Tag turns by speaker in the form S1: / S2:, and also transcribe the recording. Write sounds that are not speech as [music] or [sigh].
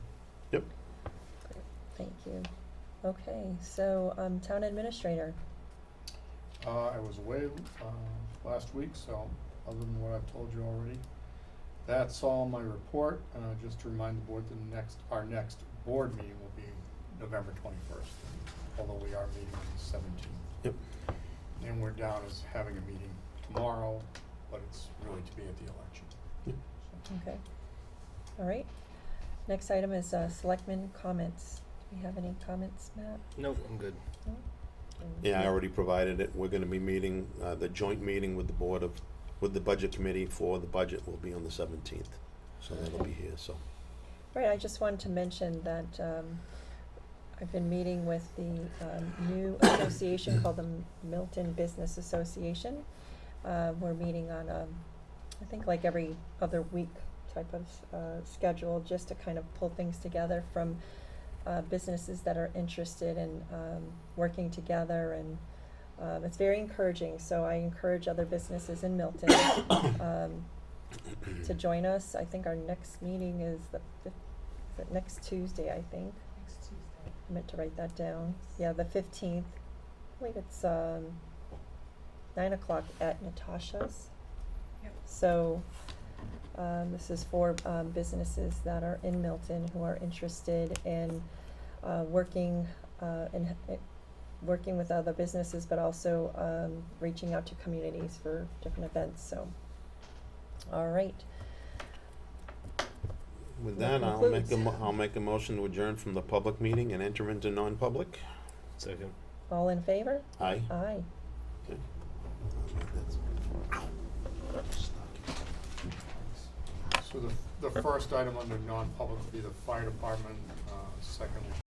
S1: you. Okay, so, um, town administrator,
S2: Uh, I was away, uh, last week, so other than what I've told you already, that's all my report. Uh, just to remind the board, the next, our next board meeting will be November twenty-first, although we are meeting on the seventeenth.
S3: Yep.
S2: And we're down as having a meeting tomorrow, but it's really to be at the election.
S3: Yep.
S2: So,
S1: okay. All right. Next item is, uh, selectmen comments. Do we have any comments, Matt?
S4: Nope, I'm good.
S1: No?
S3: Yeah, I already provided it. We're gonna be meeting, uh, the joint meeting with the Board of, with the Budget Committee for the budget will be on the seventeenth. So that'll be here, so.
S1: Right, I just wanted to mention that, um, I've been meeting with the, um, new association called the Milton Business Association. Uh, we're meeting on, um, I think like every other week type of, uh, schedule, just to kind of pull things together from, uh, businesses that are interested in, um, working together and, um, it's very encouraging, so I encourage other businesses in Milton, [coughs] um, to join us. I think our next meeting is the fif- is it next Tuesday, I think.
S5: Next Tuesday.
S1: I meant to write that down. Yeah, the fifteenth. I believe it's um nine o'clock at Natasha's.
S5: Yep.
S1: So um this is for um businesses that are in Milton who are interested in uh working uh in h- working with other businesses but also um reaching out to communities for different events, so. All right.
S3: With
S1: That
S3: that, I'll make a,
S1: concludes.
S3: mo- I'll make a motion to adjourn from the public meeting and enter into non-public.
S4: Second.
S1: All in favor?
S3: Aye.
S1: Aye.
S3: Okay. I'll make that-
S2: So the, the first item under non-public would be the fire department, uh,